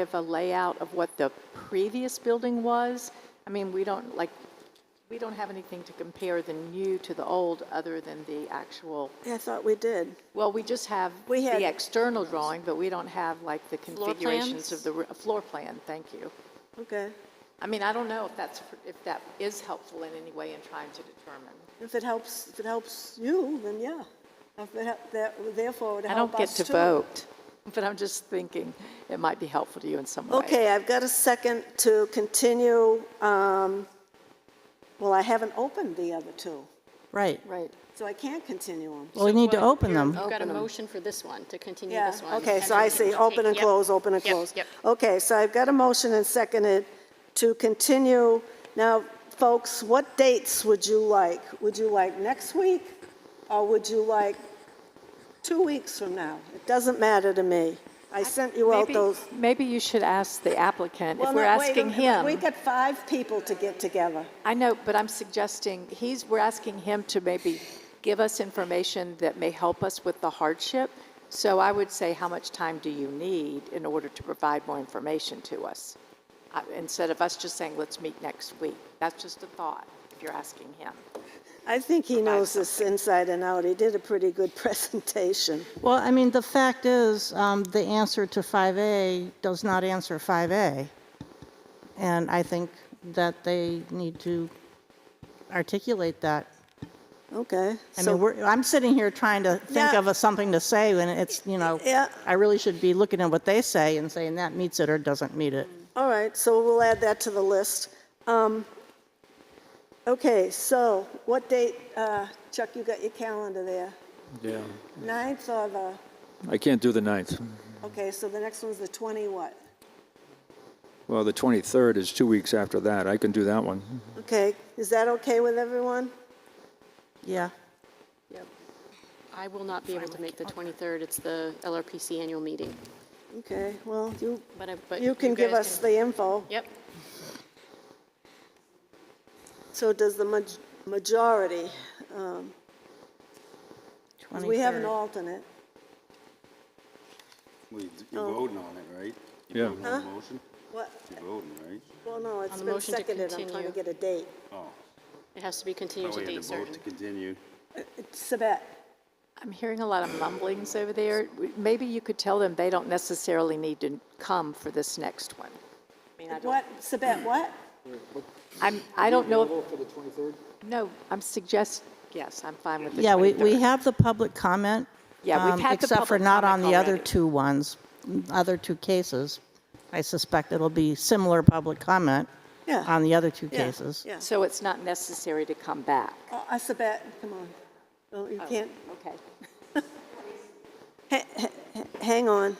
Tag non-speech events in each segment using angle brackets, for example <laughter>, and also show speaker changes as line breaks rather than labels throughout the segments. of a layout of what the previous building was? I mean, we don't, like, we don't have anything to compare the new to the old other than the actual,
I thought we did.
well, we just have
We had-
the external drawing, but we don't have like the
Floor
configurations
plans?
of the, r- floor plan, thank you.
Okay.
I mean, I don't know if that's, if that is helpful in any way in trying to determine.
If it helps, if it helps you, then yeah. If it hel- that- Therefore, it would
I don't
help
get
us
to
too.
vote, but I'm just thinking it might be helpful to you in some way.
Okay, I've got a second to continue. um, Well, I haven't opened the other two,
Right.
Right.
so I can't continue them.
Well, we need to open them.
You've got a
Open 'em.
motion for this one, to continue
Yeah,
this one.
okay, so
then
I
you
see,
take-
open and
yep,
close, open and
yep,
close.
Yep,
Okay, so I've got a motion and seconded to continue. Now, folks, what dates would you like? Would you like next week, or would you like two weeks from now? It doesn't matter to me. I sent you out
Maybe-
those.
Maybe you should ask the applicant, if
Well,
we're
no, wait a
asking
minute, We
him.
got five people to get together.
I know, but I'm suggesting, he's, we're asking him to maybe give us information that may help us with the hardship. So I would say, how much time do you need in order to provide more information to us? Uh, Instead of us just saying, let's meet next week. That's just a thought, if you're asking him.
I think he knows this inside and out. He did a pretty good <laughs> presentation.
Well, I mean, the fact is, um, the answer to 5A does not answer 5A. And I think that they need to articulate that.
Okay.
I
so-
mean, we're, I'm sitting here trying to think
Yeah.
of a- something to say when it's, you know,
Yeah.
I really should be looking at what they say and saying that meets it or doesn't meet it.
All right, so we'll add that to the list. Um, Okay, so what date, uh, Chuck, you got your calendar there?
Yeah,
Ninth or the,
I can't do the 9th.
okay, so the next one's the 20 what?
Well, the 23rd is two weeks after that. I can do that one.
Okay, is that okay with everyone?
Yeah.
yep. I will not be able to make the 23rd, it's the LRPC annual meeting,
Okay, well, you,
but I, but.
you can give
guys
us the info.
Yep,
So does the maj- majority, um, we have an
23rd.
alternate.
Wait,
Oh.
you're voting on it, right?
Yeah.
You're voting on the motion?
What,
You're voting, right?
well, no, it's
the
been
motion to
seconded, I'm trying to
continue.
get a date.
it has to be continued
Oh,
to
we had
date
to vote
certain.
to continue.
Sabette,
I'm hearing a lot of mumblings over there. Maybe you could tell them they don't necessarily need to come for this next one. I mean, I don't,
what, Sabette, what?
I'm, I don't know. For the 23rd? No, I'm suggest, yes, I'm fine with the 23rd.
Yeah, we, we have the public comment.
Yeah, we've
um,
had the
Except for
public
not on
comment
the other
already.
two ones, other two cases. I suspect it'll be similar public comment
Yeah.
on the other two
Yeah,
cases.
Yeah.
So it's not necessary to come back.
Uh, uh, Sabette, come on. Oh, you can't,
Okay.
ha- ha- ha- hang on.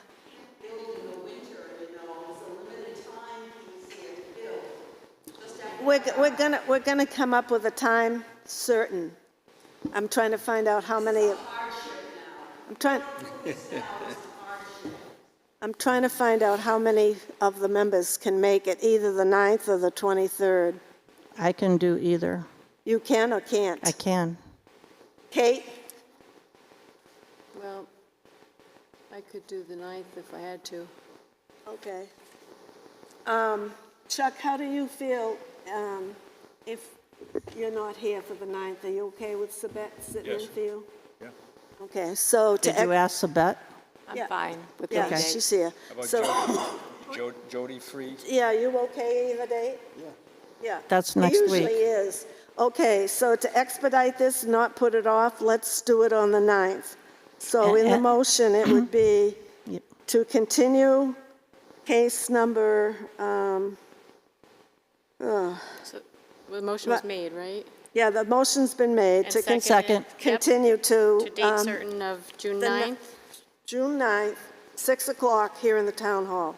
We're, g- we're gonna, we're gonna come up with a time certain. I'm trying to find out how many. I'm trying. I'm trying to find out how many of the members can make it, either the 9th or the 23rd.
I can do either.
You can or can't?
I can.
Kate?
Well, I could do the 9th if I had to.
Okay. Um, Chuck, how do you feel um, if you're not here for the 9th? Are you okay with Sabette sitting in
Yes.
for you? Yeah. Okay, so to...
Did you
ex-
ask Sabette?
Yeah.
I'm fine with
Yeah,
that
she's here. So,
Jody Free?
yeah, you okay either day? Yeah. Yeah.
That's
He
next week.
usually is. Okay, so to expedite this, not put it off, let's do it on the 9th. So in the
And-
motion, it would
<clears throat>
be
Yep.
to continue case number, um,
So, well, the motion was
But-
made, right?
Yeah, the motion's been made
And
to con-
seconded.
Second.
Yep.
continue to
To date
um,
certain of June
the ni-
9th?
June 9th, 6 o'clock here in the town hall.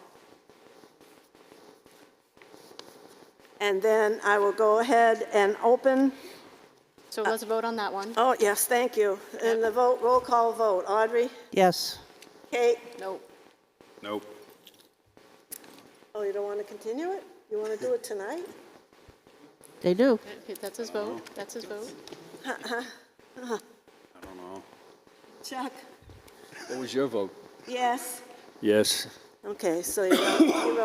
And then I will go ahead and open,
So
uh,
let's vote on that one.
oh, yes, thank you. And the vote, roll call vote, Audrey,
Yes.
Kate,
No,
Nope.
oh, you don't want to continue it? You want to do it tonight?
They do.
okay, that's his vote, that's his vote.
I don't know.
Chuck?
What was your vote?
Yes.
Yes.
Okay, so you're you're